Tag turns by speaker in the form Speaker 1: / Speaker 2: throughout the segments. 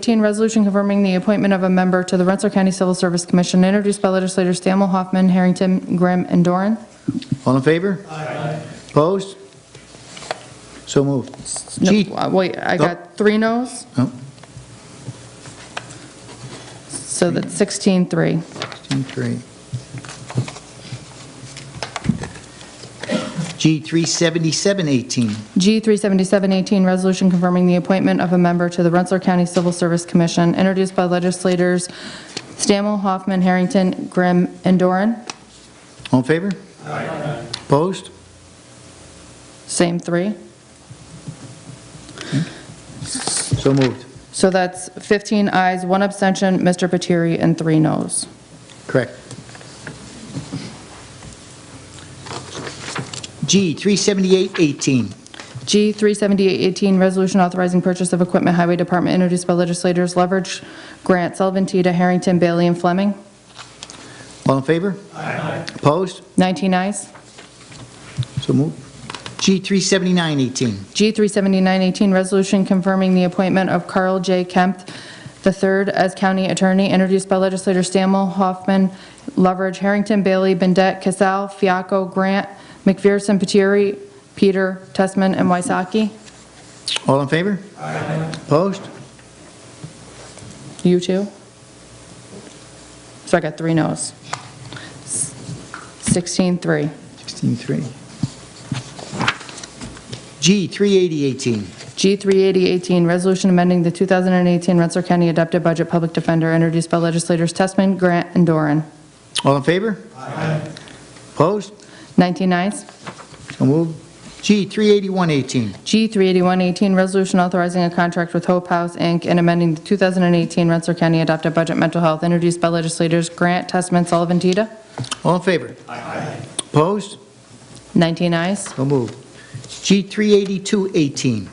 Speaker 1: 18, resolution confirming the appointment of a member to the Rensselaer County Civil Service Commission, introduced by legislators Stammel, Hoffman, Harrington, Grimm, and Doran.
Speaker 2: All in favor? Aye. Opposed? So moved.
Speaker 1: No,
Speaker 2: Gee.
Speaker 1: uh, Wait, I got three noes,
Speaker 2: Oh,
Speaker 1: so that's 16-3.
Speaker 2: 16-3. G 37718,
Speaker 1: G 377-18, resolution confirming the appointment of a member to the Rensselaer County Civil Service Commission, introduced by legislators Stammel, Hoffman, Harrington, Grimm, and Doran.
Speaker 2: all in favor? Aye. Opposed?
Speaker 1: Same three.
Speaker 2: So moved.
Speaker 1: So that's 15 ayes, one abstention, Mr. Patiri, and three noes.
Speaker 2: Correct. G 37818,
Speaker 1: G 37818, resolution authorizing purchase of equipment Highway Department introduced by legislators Leverage, Grant, Sullivan, Tita, Harrington, Bailey, and Fleming.
Speaker 2: all in favor? Aye. Opposed?
Speaker 1: 19 ayes.
Speaker 2: So moved. G 37918,
Speaker 1: G 37918, resolution confirming the appointment of Carl J. Kemp III as county attorney introduced by legislators Stammel, Hoffman, Leverage, Harrington, Bailey, Bendet, Casal, Fiaco, Grant, McPherson, Patieri, Peter, Testman, and Waisaki.
Speaker 2: all in favor? Aye. Opposed?
Speaker 1: You too? So I got three noes. 16-3.
Speaker 2: 16-3. G, 38018.
Speaker 1: G 38018, resolution amending the 2018 Rensselaer County Adopted Budget Public Defender, introduced by legislators Testman, Grant, and Doran.
Speaker 2: All in favor? Aye. Opposed?
Speaker 1: 19 ayes.
Speaker 2: So moved. G, 38118.
Speaker 1: G 38118, resolution authorizing a contract with Hope House, Inc., and amending the 2018 Rensselaer County Adopted Budget Mental Health, introduced by legislators Grant, Testman, Sullivan, Tita.
Speaker 2: All in favor? Aye. Opposed?
Speaker 1: 19 ayes.
Speaker 2: So moved. G, 38218.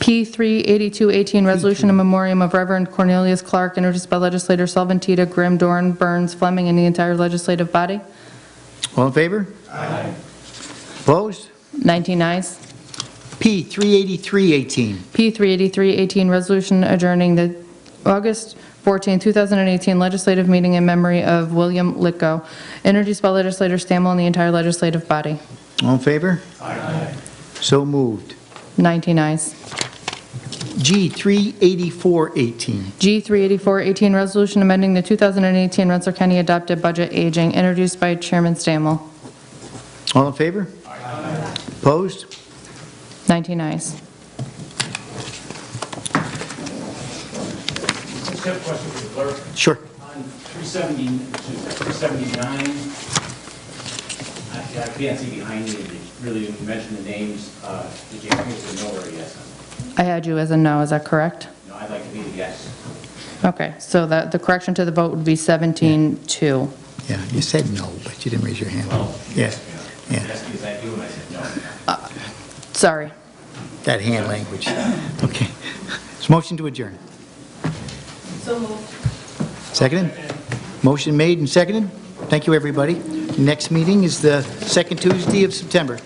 Speaker 1: P 38218, resolution in memoriam of Reverend Cornelius Clark, introduced by legislators Sullivan, Tita, Grimm, Doran, Burns, Fleming, and the entire legislative body.
Speaker 2: All in favor? Aye. Opposed?
Speaker 1: 19 ayes.
Speaker 2: P, 38318.
Speaker 1: P 38318, resolution adjourning the August 14, 2018 legislative meeting in memory of William Litko, introduced by legislator Stammel and the entire legislative body.
Speaker 2: All in favor? Aye. So moved.
Speaker 1: 19 ayes.
Speaker 2: G, 38418.
Speaker 1: G 38418, resolution amending the 2018 Rensselaer County adopted budget aging, introduced by Chairman Stammel.
Speaker 2: All in favor? Aye. Opposed?
Speaker 1: 19 ayes.
Speaker 3: Just have a question for the clerk.
Speaker 2: Sure.
Speaker 3: On 370, 379, I I can't see behind me, you really didn't mention the names. Uh, Did you have to know or yes?
Speaker 1: I had you as a no, is that correct?
Speaker 3: No, I'd like to be a yes.
Speaker 1: Okay, so that, the correction to the vote would be 17-2.
Speaker 2: Yeah, you said no, but you didn't raise your hand. Yeah, yeah,
Speaker 3: Yes, because I do, and I said no.
Speaker 1: Sorry.
Speaker 2: that hand language. Okay. It's motion to adjourn. So moved. Seconded? Motion made and seconded. Thank you, everybody. Next meeting is the second Tuesday of September.